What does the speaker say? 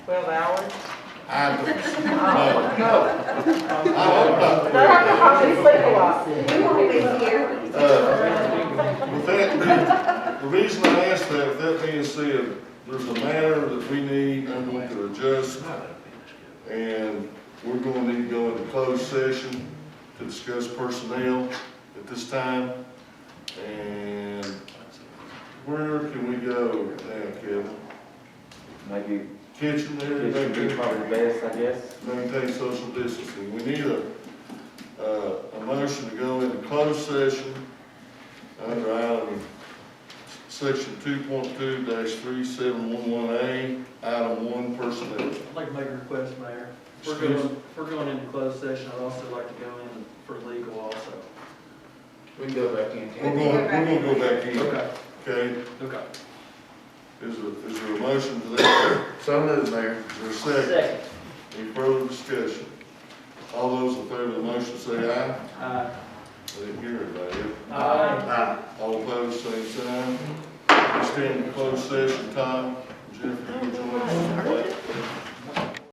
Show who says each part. Speaker 1: Twelve hours?
Speaker 2: I don't
Speaker 1: No.
Speaker 2: know. I hope not.
Speaker 1: No, I can hardly sleep a lot.
Speaker 3: We won't be here.
Speaker 2: Uh, With that, the reason I asked that, with that being said, there's a matter that we need, I'm going to adjust, and we're going to need to go into closed session to discuss personnel at this time. And where can we go now, Kevin?
Speaker 4: Maybe
Speaker 2: Kitchen there?
Speaker 4: it should be probably best, I guess.
Speaker 2: maintain social distancing. We need a, uh, a motion to go into closed session under item, section two point two three seven one one A, item one personnel.
Speaker 5: I'd like to make a request, Mayor. We're going, we're going into closed session, I'd also like to go in for legal also.
Speaker 6: We can go back in.
Speaker 2: We're going, we're gonna go back in,
Speaker 5: Okay,
Speaker 2: okay?
Speaker 5: okay.
Speaker 2: Is there, is there a motion to that?
Speaker 6: So moved, Mayor.
Speaker 2: Is there a second? Any further discussion? All those in favor of the motion say aye.
Speaker 5: Uh,
Speaker 2: I didn't hear anybody.
Speaker 1: Uh,
Speaker 5: Aye.
Speaker 6: Aye.
Speaker 2: Ah, All opposed, same sign. We stand in closed session, Tom, Jeff, you join us.